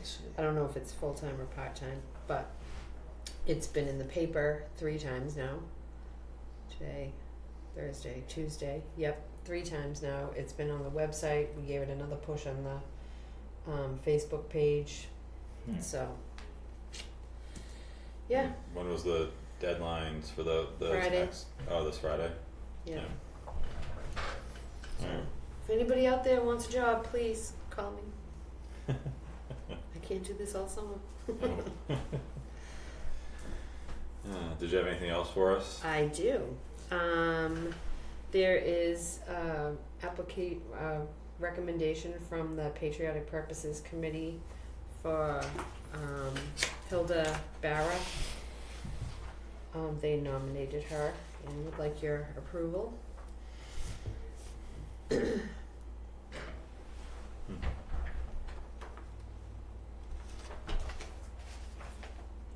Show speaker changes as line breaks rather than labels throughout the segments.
I see.
I don't know if it's full time or part time, but it's been in the paper three times now. Today, Thursday, Tuesday. Yep, three times now. It's been on the website. We gave it another push on the um, Facebook page.
Hmm.
So, yeah,
When was the deadlines for the the
Friday.
next? Oh, this Friday.
yeah.
Yeah.
So, if anybody out there wants a job, please call me. I can't do this all summer.
Yeah. Uh, did you have anything else for us?
I do. Um, there is uh, applica- uh, recommendation from the Patriotic Purposes Committee for um, Hilda Barra. Um, they nominated her and would like your approval.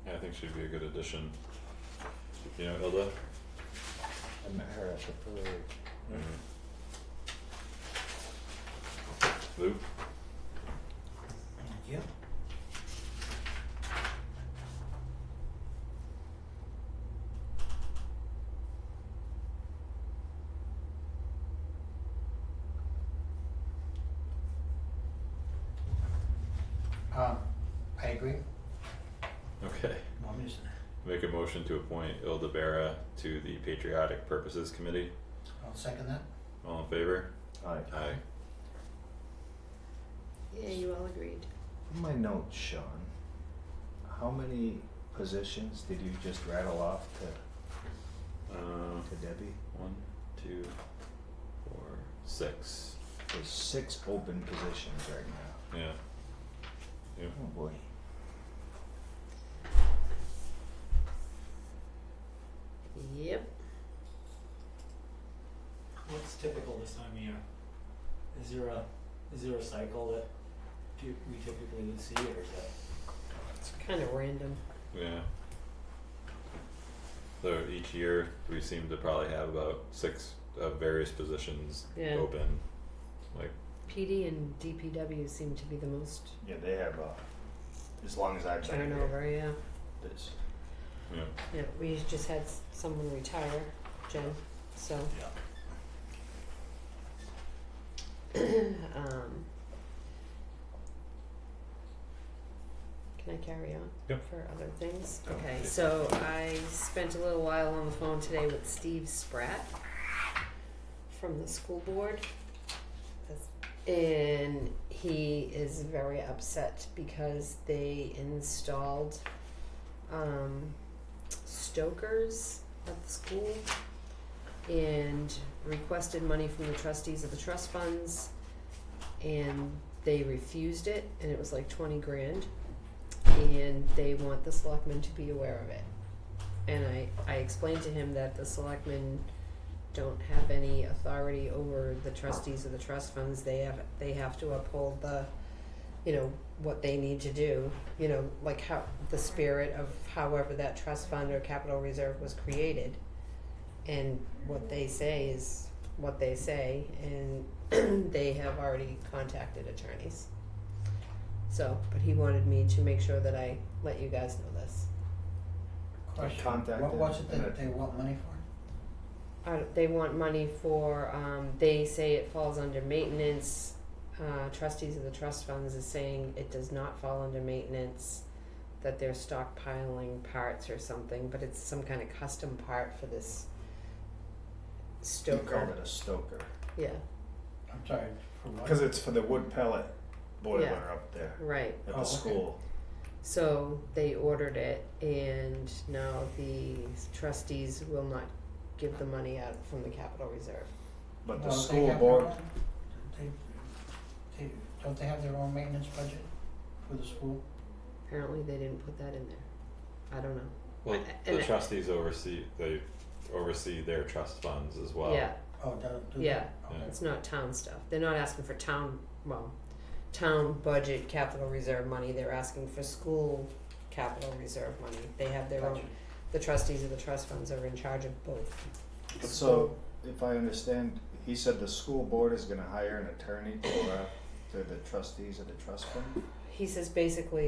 Yeah, I think she'd be a good addition. You know, Hilda.
I met her at the parade.
Lou.
Yep. Um, I agree.
Okay.
Want me to s-
Make a motion to appoint Ilda Barra to the Patriotic Purposes Committee.
I'll second that.
All in favor?
Aye.
Aye.
Yeah, you all agreed.
My notes, Sean. How many positions did you just rattle off to,
Uh,
to Debbie?
one, two, four, six.
There's six open positions right now.
Yeah.
Oh boy.
Yep.
What's typical this time of year? Is there a, is there a cycle that do we typically would see or is that?
It's kind of random.
Yeah. So each year, we seem to probably have about six of various positions
Yeah.
open. Like,
PD and DPW seem to be the most
Yeah, they have, uh, as long as I've been here,
turnover, yeah.
this.
you know,
Yeah, we just had s- someone retire, Jen, so. Um. Can I carry on?
Yep.
For other things?
Go.
Okay,
Yeah.
so I spent a little while on the phone today with Steve Spratt from the school board. That's- And he is very upset because they installed um stokers at the school and requested money from the trustees of the trust funds and they refused it and it was like twenty grand and they want the selectmen to be aware of it. And I, I explained to him that the selectmen don't have any authority over the trustees of the trust funds, they have, they have to uphold the, you know, what they need to do, you know, like how, the spirit of however that trust fund or capital reserve was created. And what they say is what they say, and they have already contacted attorneys. So, but he wanted me to make sure that I let you guys know this.
Question.
contacted
What, what's it
and
that
it-
they want money for?
Uh, they want money for, um, they say it falls under maintenance. Uh, trustees of the trust funds is saying it does not fall under maintenance, that they're stockpiling parts or something, but it's some kind of custom part for this
You called
stoker.
it a stoker.
Yeah,
I'm sorry, for what?
Cause it's for the wood pellet boiler
Yeah.
up there
right.
at
Oh,
the
okay.
school.
So they ordered it, and now the trustees will not give the money out from the capital reserve.
But
Well,
the
they
school
have their
board,
own- They, they, don't they have their own maintenance budget for the school?
Apparently, they didn't put that in there. I don't know.
well,
And
the
I-
trustees oversee they oversee their trust funds as well.
Yeah,
Oh, do, do they?
Yeah.
Okay.
it's not town stuff. They're not asking for town, well, town budget capital reserve money. They're asking for school capital reserve money. They have their own.
Gotcha.
The trustees of the trust funds are in charge of both.
so if I understand, he said the school board is gonna hire an attorney to, uh, to the trustees of the trust fund?
he says basically